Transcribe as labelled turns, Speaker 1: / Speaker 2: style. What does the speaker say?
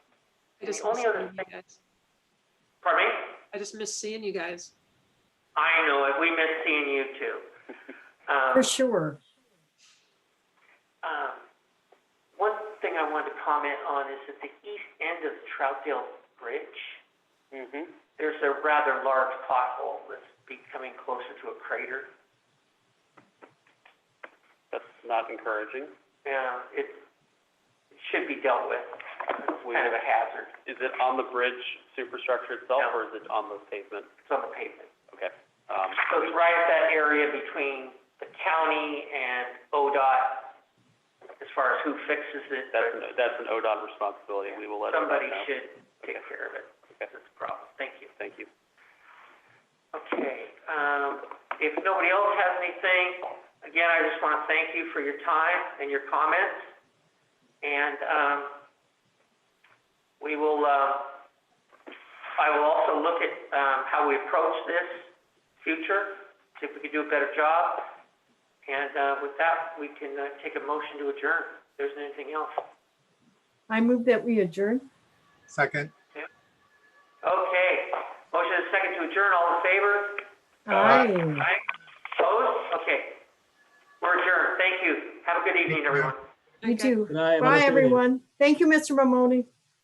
Speaker 1: just
Speaker 2: only
Speaker 1: miss
Speaker 2: other
Speaker 1: seeing you guys.
Speaker 2: Pardon me?
Speaker 1: I just miss seeing you guys.
Speaker 2: I know it. We miss seeing you too. Um,
Speaker 3: For sure.
Speaker 2: um, one thing I wanted to comment on is at the east end of Troutdale Bridge,
Speaker 4: Mm-hmm.
Speaker 2: there's a rather large pothole that's becoming closer to a crater.
Speaker 4: That's not encouraging.
Speaker 2: Yeah, it, it should be dealt with. It's
Speaker 4: We-
Speaker 2: kind of a hazard.
Speaker 4: Is it on the bridge superstructure itself,
Speaker 2: No.
Speaker 4: or is it on the pavement?
Speaker 2: It's on the pavement.
Speaker 4: Okay. Um,
Speaker 2: So it's right at that area between the county and ODOT as far as who fixes it.
Speaker 4: that's,
Speaker 2: but
Speaker 4: an- that's an ODOT responsibility. We will let them know.
Speaker 2: Somebody should take care of it.
Speaker 4: Okay.
Speaker 2: That's a problem. Thank you.
Speaker 4: Thank you.
Speaker 2: Okay, um, if nobody else has anything, again, I just want to thank you for your time and your comments. And, um, we will, uh, I will also look at, um, how we approach this future, see if we can do a better job. And, uh, with that, we can, uh, take a motion to adjourn. If there's anything else.
Speaker 3: I move that we adjourn.
Speaker 5: Second,
Speaker 2: Okay, motion is second to adjourn. All in favor?
Speaker 3: Aye.
Speaker 2: Aye. Opposed? Okay. We're adjourned. Thank you. Have a good evening, everyone.
Speaker 3: You
Speaker 1: Okay.
Speaker 3: too.
Speaker 6: Good night. have a
Speaker 3: Bye,
Speaker 6: nice evening.
Speaker 3: everyone. Thank you, Mr. Mamoni.